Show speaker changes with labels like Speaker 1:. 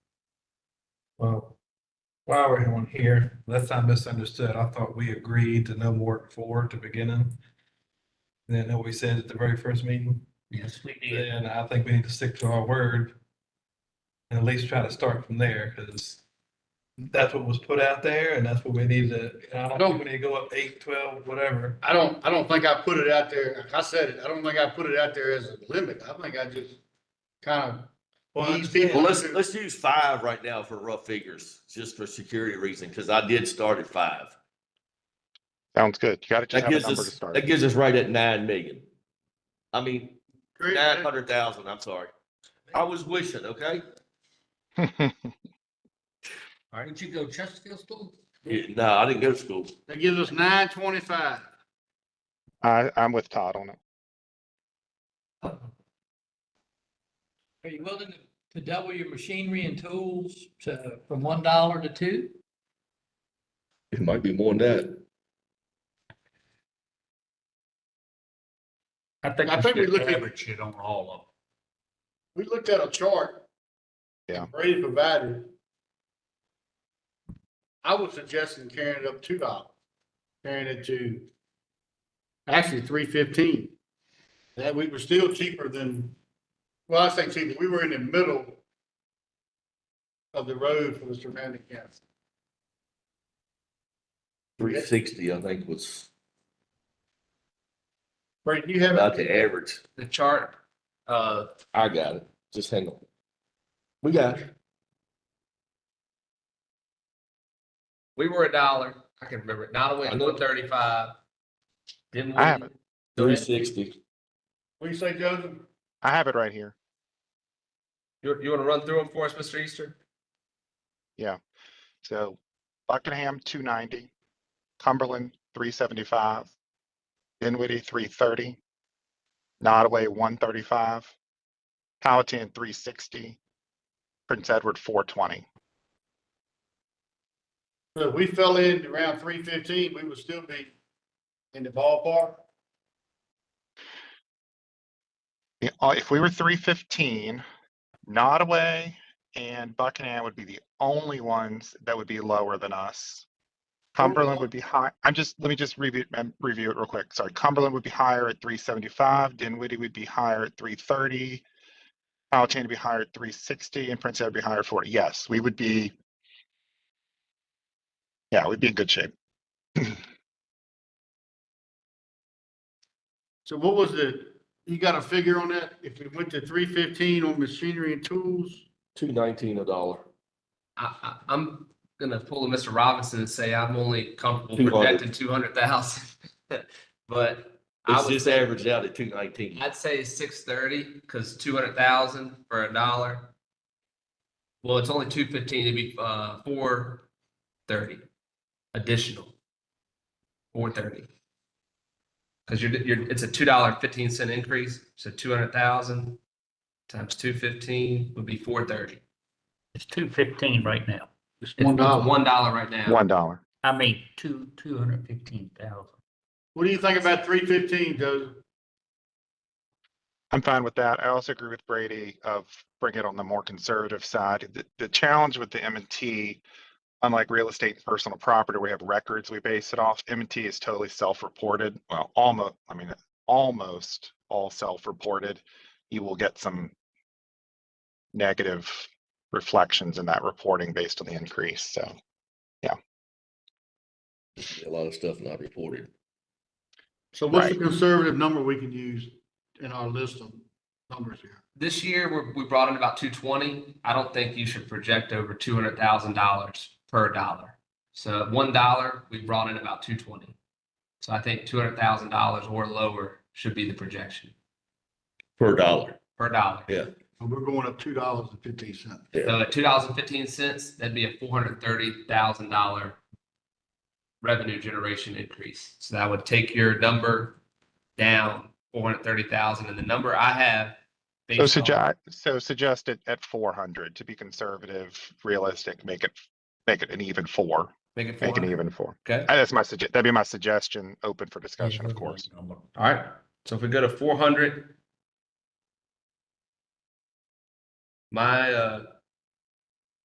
Speaker 1: Well, while we're on here, unless I misunderstood, I thought we agreed to no more than four to beginning. Then that we said at the very first meeting,
Speaker 2: Yes, we did.
Speaker 1: then I think we need to stick to our word. And at least try to start from there, because that's what was put out there and that's what we need to, and I don't think we need to go up eight, twelve, whatever.
Speaker 3: I don't, I don't think I put it out there, I said it, I don't think I put it out there as a limit, I think I just kind
Speaker 1: Well, I
Speaker 3: These people-
Speaker 4: Well, let's, let's use five right now for rough figures, just for security reason, because I did start at five.
Speaker 5: Sounds good. You gotta just
Speaker 4: That
Speaker 5: have a
Speaker 4: gives
Speaker 5: number to
Speaker 4: us,
Speaker 5: start.
Speaker 4: that gives us right at nine million. I mean, nine
Speaker 3: of.
Speaker 4: hundred thousand, I'm sorry. I was wishing, okay?
Speaker 2: Didn't you go Chesterfield School?
Speaker 4: Yeah, No, I didn't go to school.
Speaker 3: That gives us nine twenty-five.
Speaker 5: I, I'm with Todd on it.
Speaker 2: Are you willing to double your machinery and tools to, from one dollar to two?
Speaker 4: It might be more than that.
Speaker 6: I think.
Speaker 3: I think we
Speaker 6: should
Speaker 3: looked at-
Speaker 6: Average it on all of them.
Speaker 3: We looked at a chart.
Speaker 5: Yeah.
Speaker 3: Brady provided. I was suggesting carrying it up two dollars, carrying it to actually three fifteen. That we were still cheaper than, well, I say cheaper, we were in the middle of the road for the surrounding counties.
Speaker 4: Three sixty, I think, was
Speaker 3: Brady, do you have?
Speaker 4: about the average.
Speaker 2: The chart, uh,
Speaker 4: I got it. Just hang on. We got it.
Speaker 2: we were a dollar, I can remember it, not
Speaker 4: I know.
Speaker 2: thirty-five. Didn't
Speaker 5: I have it.
Speaker 4: Three sixty.
Speaker 3: What do you say, Joseph?
Speaker 5: I have it right here.
Speaker 2: You, you wanna run through them for us, Mr. Easter?
Speaker 5: So Buckingham, two ninety, Cumberland, three seventy-five, Dinwiddie, three thirty, Nodaway, one thirty-five, Palatine, three sixty, Prince Edward, four twenty.
Speaker 3: So if we fell in around three fifteen, we would still be in the ballpark.
Speaker 5: uh, If we were three fifteen, Nodaway and Buckingham would be the only ones that would be lower than us. Cumberland would be high, I'm just, let me just review, um, review it real quick, sorry, Cumberland would be higher at three seventy-five, Dinwiddie would be higher at three thirty. Palatine would be higher at three sixty, and Prince Edward would be higher at forty, yes, we would be. Yeah, we'd be in good shape,
Speaker 3: So what was the, you got a figure on that? If we went to three fifteen on machinery and tools?
Speaker 4: Two nineteen a dollar.
Speaker 7: I, I, I'm gonna pull a Mr. Robinson and say I'm only comfortable
Speaker 4: 200.
Speaker 7: projecting two hundred thousand. But I
Speaker 4: It's
Speaker 7: would
Speaker 4: just
Speaker 7: say,
Speaker 4: averaged out at two nineteen.
Speaker 7: I'd say six thirty, cause two hundred thousand for a dollar. Well, it's only two fifteen, it'd be, uh, four thirty additional. Four thirty. Cause you're, you're, it's a two dollar fifteen cent increase, so two hundred thousand times two fifteen would be four thirty.
Speaker 6: It's two fifteen right now.
Speaker 3: It's one dollar.
Speaker 7: One dollar right now.
Speaker 5: one dollar.
Speaker 6: I mean, two, two hundred fifteen thousand.
Speaker 3: What do you think about three fifteen, Joseph?
Speaker 5: I'm fine with that. I also agree with Brady of bring it on the more conservative side. The, the challenge with the M and T, unlike real estate and personal property, we have records we base it off. M and T is totally self-reported. Well, almost, I mean, almost all self-reported. You will get some negative reflections in that reporting based on the increase. So
Speaker 4: A lot of stuff not reported.
Speaker 3: So what's the conservative number we can use in our list of numbers here?
Speaker 7: This year, we're, we brought in about two twenty. I don't think you should project over two hundred thousand dollars per dollar. So at one dollar, we brought in about two twenty. So I think two hundred thousand dollars or lower should be the projection
Speaker 4: Per dollar.
Speaker 7: per dollar.
Speaker 3: So We're going up two dollars and fifteen cents.
Speaker 7: So at two dollars and fifteen cents, that'd be a four hundred thirty thousand dollar revenue generation increase. So that would take your number down four hundred thirty thousand, and the number I have.
Speaker 5: So
Speaker 7: based on-
Speaker 5: suggest, so suggest it at four hundred to be conservative, realistic, make it, make it an even four,
Speaker 7: Make it four
Speaker 5: make it
Speaker 7: hundred.
Speaker 5: even four.
Speaker 7: Okay.
Speaker 5: Uh, That's my suggestion. That'd be my suggestion, open for discussion, of course.
Speaker 7: All right, so if we go to four hundred. My, uh,